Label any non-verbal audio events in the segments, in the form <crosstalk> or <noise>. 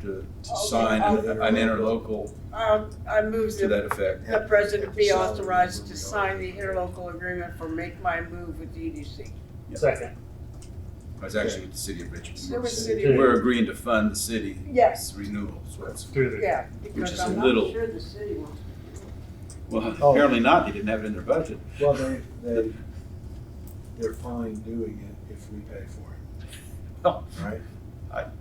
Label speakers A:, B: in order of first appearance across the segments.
A: to, to
B: Oh, Okay,
A: sign
B: I'll-
A: an an interlocal
B: I'll, Um, I move
A: to
B: that
A: that effect.
B: the president be authorized to sign the interlocal agreement for Make My Move with EDC.
C: Second.
A: It's actually with the city of Richmond.
B: Silver City,
A: We're agreeing to fund the city's
B: yes,
A: renewal, so that's,
C: Through the,
B: yeah, because
A: is a
B: I'm
A: little-
B: not sure the city wants.
A: well,
D: Oh.
A: apparently not, they didn't have it in their budget.
D: Well, they, they, they're fine doing it if we pay for
A: Oh.
D: it. Right?
A: <laughs>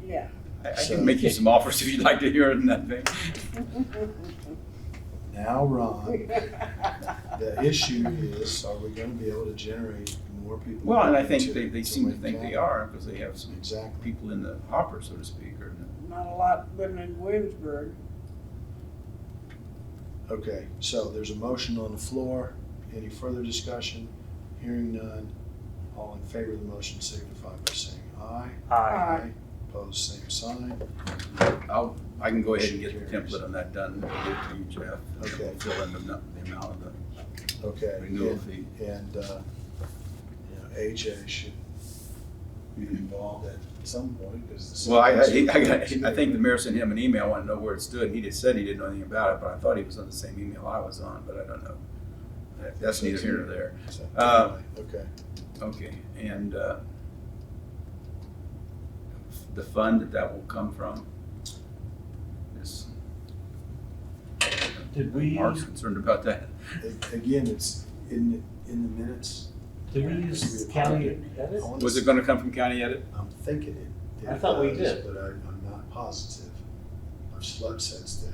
B: Yeah.
A: I, I can make you some offers if you'd like to hear it in that thing.
D: Now, Ron,
B: <laughs>
D: the issue is, are we gonna be able to generate more people?
A: Well, and I
D: to-
A: think they, they
D: to
A: seem to
D: Wayne
A: think
D: County?
A: they are, because they have some
D: Exactly.
A: people in the hopper, so to speak, or.
B: Not a lot living in Williamsburg.
D: Okay, so there's a motion on the floor. Any further discussion? Hearing none. All in favor of the motion signify by saying aye.
C: aye.
D: Opposed, same sign.
A: I'll, I can go ahead and get the template on that done, give it to you, Jeff. and
D: Okay.
A: we'll Fill in the, nu- the amount of the
D: Okay.
A: renewal fee.
D: And, and, uh, you know, AJ should be involved at some point because.
A: Well, I, I, I, I think the mayor sent him an email, I want to know where it stood, and he just said he didn't know anything about it, but I thought he was on the same email I was on, but I don't know. That- That's neither here nor there. uh,
D: Okay,
A: Okay, and, uh, the fund that that will come from is.
C: Did we-
A: Mark's concerned about that.
D: A- again, it's in, in the minutes.
C: Did we use county edit?
D: I wanna
A: Was
D: say-
A: it gonna come from county edit?
D: I'm thinking it.
C: I
D: it
C: thought we
D: does,
C: did.
D: But I, I'm not positive. I've slept since then.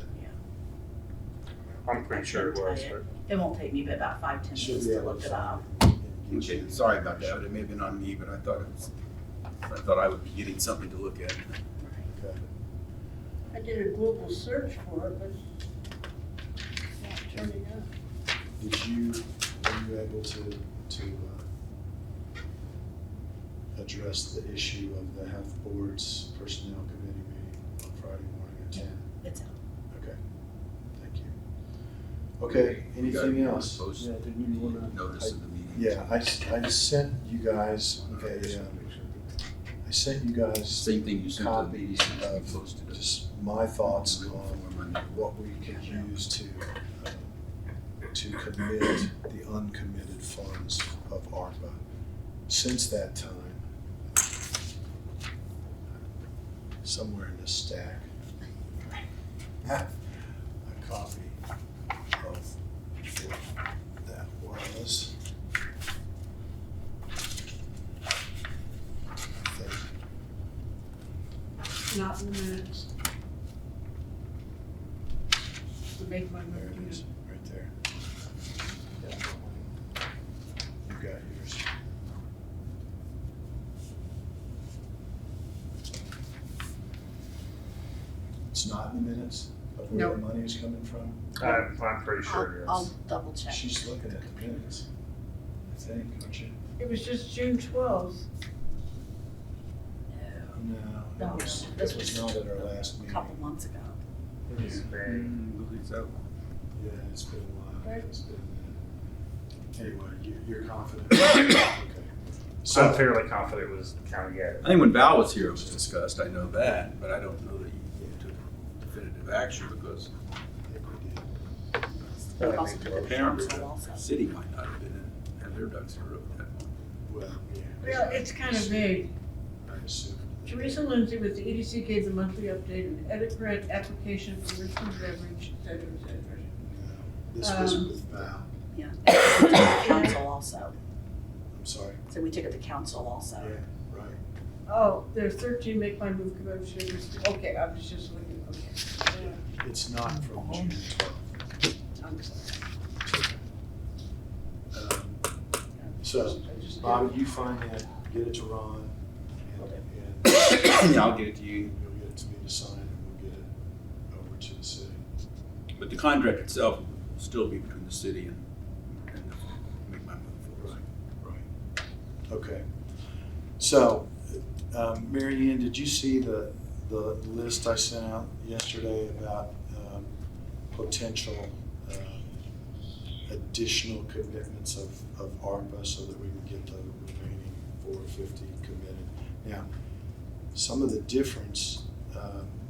C: I'm pretty sure it was, but
E: It won't take me but about five, ten
D: Should
E: minutes
D: be
E: to
D: able
E: look
D: to
E: it up.
D: find it and get
A: Okay,
D: you-
A: sorry about that, but it may have been on me, but I thought it was, I thought I would be getting something to look at.
D: Okay.
B: I did a Google search for it, but it's not turning up.
D: Did you, were you able to, to, uh, address the issue of the health board's personnel committee meeting on Friday morning at ten?
E: It's out.
D: Okay, thank you. Okay, anything else?
A: Post
C: yeah, did we wanna?
A: Notice of the meeting.
D: Yeah, I, s- I sent you guys a, uh, I sent you guys
A: Same thing you sent to the meeting,
D: copies
A: you
D: of
A: posted it.
D: uh, just my thoughts
A: Written
D: on
A: form on that.
D: what we could use to, uh, to commit the uncommitted funds of ARPA. Since that time, somewhere in this stack, a copy of what that was. I think
B: Not in the minutes. To make my
D: There
B: move.
D: it is, right there. You got yours. It's not in the minutes of where the money is coming from?
C: I'm, I'm pretty sure
E: I'll,
C: it
E: I'll
C: is.
E: double check.
D: She's looking at the minutes, I think, aren't you?
B: It was just June twelfth.
E: No,
D: No,
E: No,
D: it was,
E: no, this
D: it was not
E: was
D: at our last
E: a
D: meeting.
E: couple months ago.
C: It is May.
A: Mm, so.
D: Yeah, it's been a while,
B: Right.
D: it's been, uh, anyway, you, you're
E: <coughs>
D: confident? Okay.
C: So I'm
D: So,
C: fairly confident it was county edit.
A: I think when Val was here, it was discussed, I know that, but I don't know that you took definitive action because
D: I think we did.
E: We've
C: I
E: also
C: think
E: put the
A: apparently
E: council also.
A: the city might not have been in, had their ducks in a row at that point.
D: Well, yeah.
B: Well, it's kind of vague.
D: I assume.
B: Teresa Lindsay with the EDC gave the monthly update and edit grant application for Richmond Beverage, et cetera, et cetera.
D: This was
B: Um,
D: with Val,
E: We took the Council also.
D: I'm sorry,
E: So we took it to council
D: yeah,
E: also.
D: right.
B: Oh, there's thirteen Make My Move commemorations. Okay, I was just looking, okay.
D: It's not from June twelfth.
B: Yeah, I'm sorry.
D: Um, So,
B: I just-
D: Bobby, you find that, get it to Ron, and,
A: <coughs>
D: and
A: Yeah, I'll get it to you.
D: you'll get it to me to sign, and we'll get it over to the city.
A: But the contract itself will still be between the city and, and make my move.
D: Right, right. Okay. So, um, Mary Ann, did you see the, the list I sent out yesterday about, um, potential, um, additional commitments of, of ARPA so that we can get the remaining four fifty committed? Now, some of the difference, um,